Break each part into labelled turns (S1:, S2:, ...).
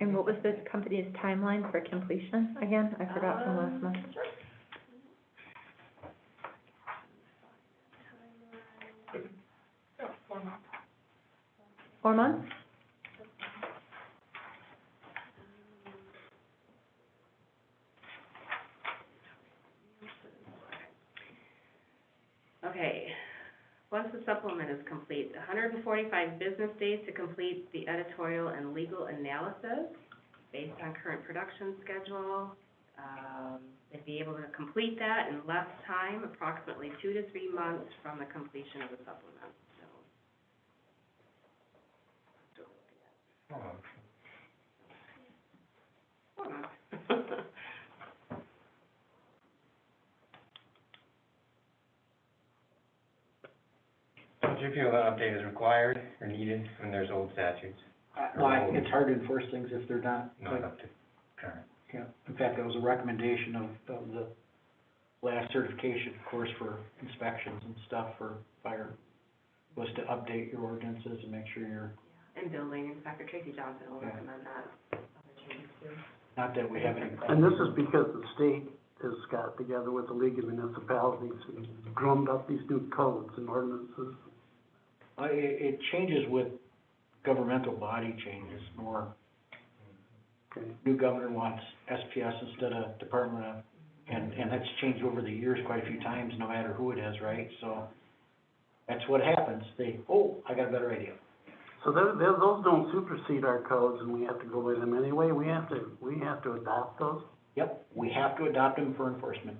S1: And what was this company's timeline for completion again? I forgot from last month.
S2: Um,
S1: Four months?
S2: Okay, once the supplement is complete, hundred and forty-five business days to complete the editorial and legal analysis based on current production schedule. Um, they'd be able to complete that in less time, approximately two to three months from the completion of the supplement, so. Four months.
S3: Don't you feel that update is required or needed when there's old statutes,
S4: I- Well, I think it's hard to enforce things if they're not,
S3: not
S4: like,
S3: up to current?
S4: you know, in fact, that was a recommendation of, of the last certification course for inspections and stuff for fire, was to update your ordinances and make sure you're,
S2: And building inspector Tracy Johnson will
S4: Yeah.
S2: recommend that, other changes too.
S4: not that we have any.
S5: And this is because the state has got together with the League of Municipalities and drummed up these new codes and ordinances.
S4: Uh, it, it changes with governmental body changes more.
S5: Okay.
S4: New governor wants SPS instead of Department of, and, and that's changed over the years quite a few times, no matter who it is, right? So, that's what happens, they, oh, I got a better idea.
S5: So they're, they're, those don't supersede our codes and we have to go by them anyway. We have to, we have to adopt those.
S4: Yep, we have to adopt them for enforcement.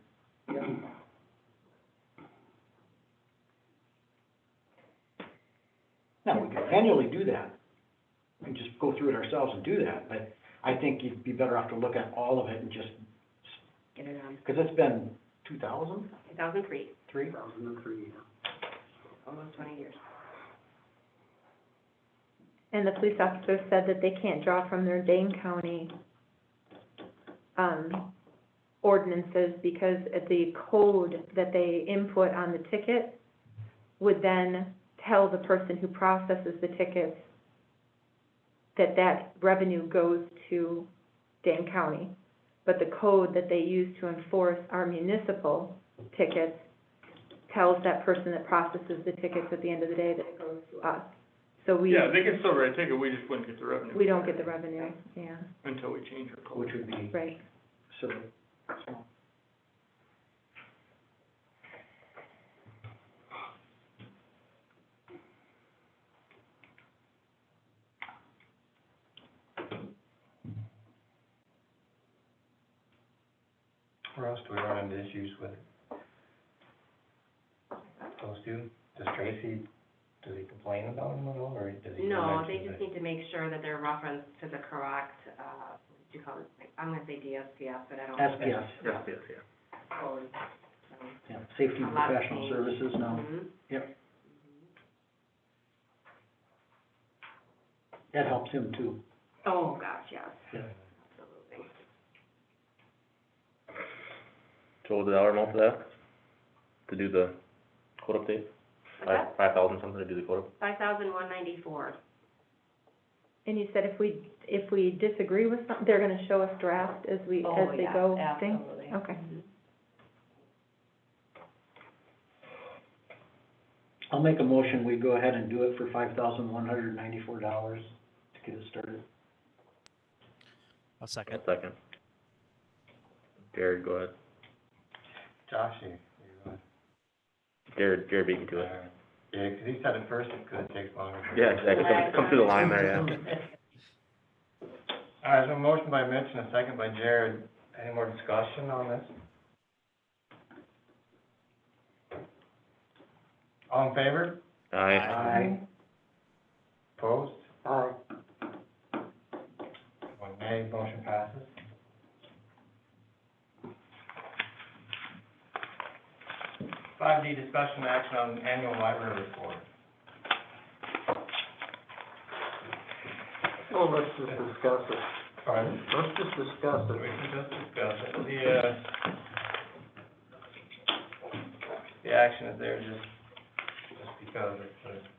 S4: Now, we can manually do that, and just go through it ourselves and do that, but I think you'd be better off to look at all of it and just,
S2: Get it on,
S4: because it's been two thousand,
S2: two thousand three,
S4: three?
S5: 2003, yeah.
S2: almost twenty years.
S1: And the police officer said that they can't draw from their Dane County, um, ordinances because of the code that they input on the ticket would then tell the person who processes the tickets that that revenue goes to Dane County. But the code that they use to enforce our municipal tickets tells that person that processes the tickets at the end of the day that it goes to us. So we.
S6: Yeah, they can still write a ticket, we just wouldn't get the revenue.
S1: We don't get the revenue, yeah,
S6: Until we change our code.
S4: Which would be,
S1: right.
S4: so,
S3: Where else do we run into issues with it? Those two, does Tracy, does he complain about them at all, or does he mention
S2: No, they
S3: that-
S2: just need to make sure that they're referenced to the correct, uh, what do you call it? I'm gonna say DSPS, but I don't. know Oh, if it's
S4: SPS,
S6: Yeah, yeah, yeah.
S2: code, so.
S4: yeah, Safety
S2: A
S4: and
S2: lot of
S4: Professional
S2: change.
S4: Services now.
S2: Mhm.
S4: That helps him too.
S2: Oh, gosh, yes,
S4: Yeah.
S2: absolutely.
S7: So the dollar amount for that, to do the code update,
S2: What's
S7: five,
S2: that?
S7: five thousand something to do the code up?
S2: Five thousand one ninety-four.
S1: And you said if we, if we disagree with something, they're gonna show us draft as we, as they go thing?
S2: Oh, absolutely.
S1: Okay,
S4: I'll make a motion, we go ahead and do it for five thousand one hundred ninety-four dollars to get it started.
S8: I'll second.
S7: Second. Jared, go ahead.
S3: Josh, you, you, uh,
S7: Jared, Jared beat me to it.
S3: yeah, 'cause he said at first it could take longer.
S7: Yeah, exactly, come, come through the line there, yeah.
S3: All right, so a motion by Mitch and a second by Jared, any more discussion on this? All in favor?
S7: Aye.
S4: Aye.
S3: Opposed?
S5: Aye.
S3: One nay, motion passes. Five D, discussion action on annual library report.
S5: Well, let's just discuss it.
S3: Pardon?
S5: Let's just discuss
S3: We
S5: it.
S3: can just discuss it, the, uh, the action is there just, just because it's, uh,
S2: Mm-hmm.